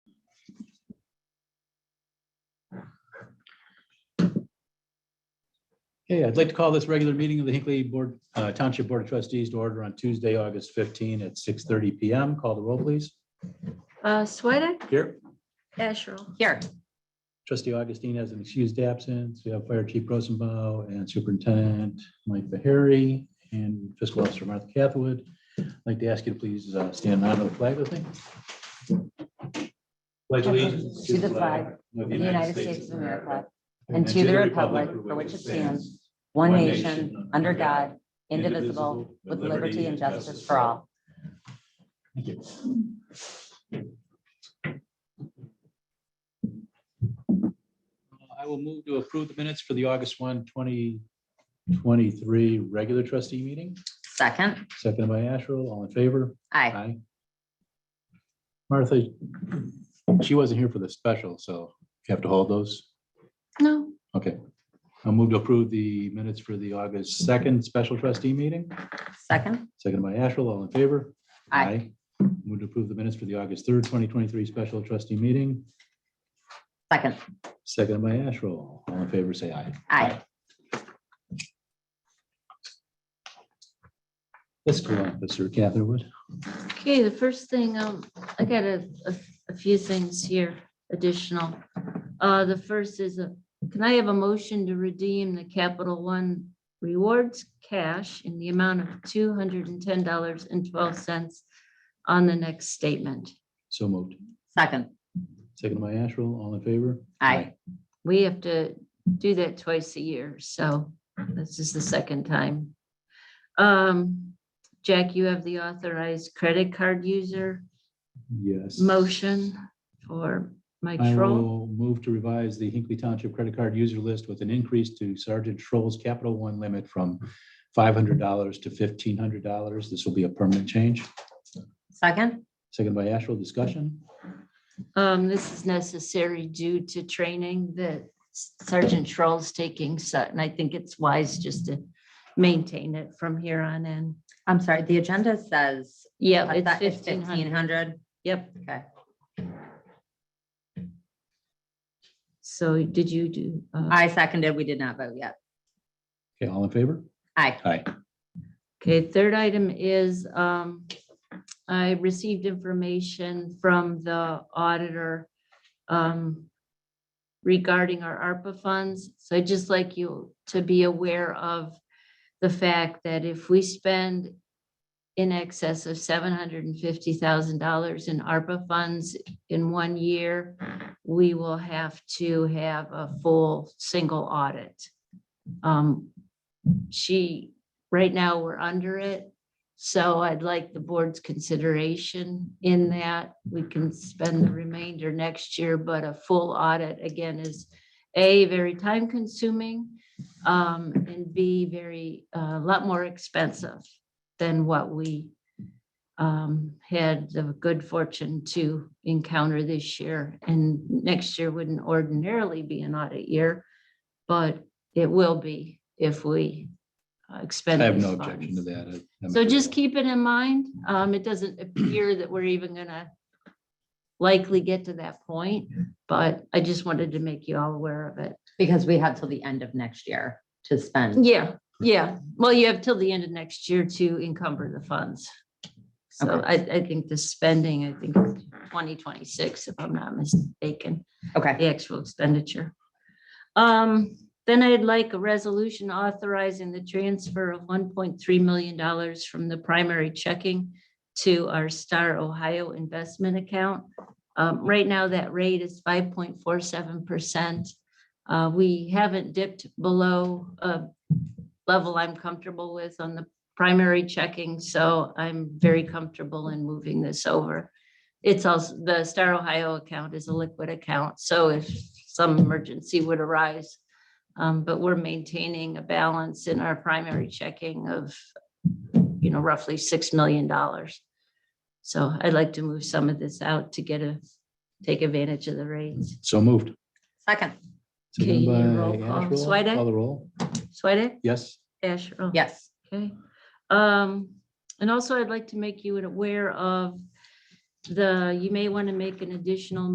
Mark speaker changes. Speaker 1: Hey, I'd like to call this regular meeting of the Hinkley Board, uh, Township Board of Trustees to order on Tuesday, August 15 at 6:30 PM. Call the roll, please.
Speaker 2: Uh, Swedek,
Speaker 1: Here,
Speaker 2: Asherle,
Speaker 3: Here,
Speaker 1: trustee Augustine has an excused absence. We have Fire Chief Rosenbaum and Superintendent Mike Bahari and Fiscal Officer Martha Cathwood. I'd like to ask you to please uh, stand on the flag with me. Pledge
Speaker 3: allegiance to the flag
Speaker 1: of
Speaker 3: the United States of America, and to the republic for which it stands, one nation, under God, indivisible, with liberty and justice for all.
Speaker 1: Thank you. Uh, I will move to approve the minutes for the August 1, 2023 regular trustee meeting,
Speaker 3: Second,
Speaker 1: seconded by Asherle, all in favor?
Speaker 3: aye.
Speaker 1: Aye. Martha, she wasn't here for the special, so you have to hold those.
Speaker 3: No.
Speaker 1: Okay. I'll move to approve the minutes for the August 2nd special trustee meeting,
Speaker 3: Second,
Speaker 1: seconded by Asherle, all in favor?
Speaker 3: aye.
Speaker 1: Move to approve the minutes for the August third, twenty twenty-three special trustee meeting,
Speaker 3: Second,
Speaker 1: seconded by Asherle. All in favor, say aye.
Speaker 3: aye.
Speaker 1: Fiscal Officer Catherwood.
Speaker 2: okay, the first thing, um, I got a, a, a few things here additional. Uh, the first is a, can I have a motion to redeem the Capital One rewards cash in the amount of two hundred and ten dollars and twelve cents on the next statement?
Speaker 1: So moved.
Speaker 3: Second,
Speaker 1: Seconded by Asherle. All in favor?
Speaker 3: aye.
Speaker 2: We have to do that twice a year, so this is the second time. Um, Jack, you have the authorized credit card user
Speaker 1: Yes.
Speaker 2: motion for Mike
Speaker 1: I
Speaker 2: Schroll.
Speaker 1: will move to revise the Hinkley Township credit card user list with an increase to Sergeant Schroll's Capital One limit from five hundred dollars to fifteen hundred dollars. This will be a permanent change.
Speaker 3: Second,
Speaker 1: Seconded by Asherle. Discussion?
Speaker 2: Um, this is necessary due to training that Sergeant Schroll's taking, so, and I think it's wise just to maintain it from here on in.
Speaker 3: I'm sorry, the agenda says
Speaker 2: Yeah,
Speaker 3: I
Speaker 2: it's
Speaker 3: thought it's
Speaker 2: fifteen
Speaker 3: fifteen
Speaker 2: hundred.
Speaker 3: hundred.
Speaker 2: Yep.
Speaker 3: Okay.
Speaker 2: So did you do? uh,
Speaker 3: I seconded, we did not vote yet.
Speaker 1: Okay, all in favor?
Speaker 3: Aye.
Speaker 1: Aye.
Speaker 2: Okay, third item is, um, I received information from the auditor, um, regarding our ARPA funds. So I'd just like you to be aware of the fact that if we spend in excess of seven hundred and fifty thousand dollars in ARPA funds in one year, we will have to have a full single audit. Um, she Right now, we're under it. So I'd like the board's consideration in that. We can spend the remainder next year, but a full audit again is A, very time consuming, um, and B, very, uh, a lot more expensive than what we um, had the good fortune to encounter this year. And next year wouldn't ordinarily be an audit year, but it will be if we uh, expend.
Speaker 1: I have
Speaker 2: these
Speaker 1: no objection
Speaker 2: funds.
Speaker 1: to that. I- I'm
Speaker 2: So
Speaker 1: agreeable.
Speaker 2: just keep it in mind. Um, it doesn't appear that we're even gonna likely get to that point, but I just wanted to make you all aware of it.
Speaker 3: Because we have till the end of next year to spend.
Speaker 2: Yeah, yeah. Well, you have till the end of next year to encumber the funds. So I, I think the spending, I think twenty twenty-six, if I'm not mistaken,
Speaker 3: Okay,
Speaker 2: the actual expenditure. Um, then I'd like a resolution authorizing the transfer of one point three million dollars from the primary checking to our Star Ohio investment account. Um, right now, that rate is five point four seven percent. Uh, we haven't dipped below a level I'm comfortable with on the primary checking, so I'm very comfortable in moving this over it's also, the Star Ohio account is a liquid account, so if some emergency would arise. Um, but we're maintaining a balance in our primary checking of, you know, roughly six million dollars. So I'd like to move some of this out to get a, take advantage of the rates.
Speaker 1: So moved.
Speaker 3: second,
Speaker 2: Okay,
Speaker 1: Seconded by
Speaker 2: roll call.
Speaker 1: Asherle.
Speaker 2: Swedek?
Speaker 1: Call the roll.
Speaker 2: Swedek?
Speaker 1: Yes.
Speaker 2: Asherle?
Speaker 3: yes.
Speaker 2: Okay, um, and also I'd like to make you aware of the, you may want to make an additional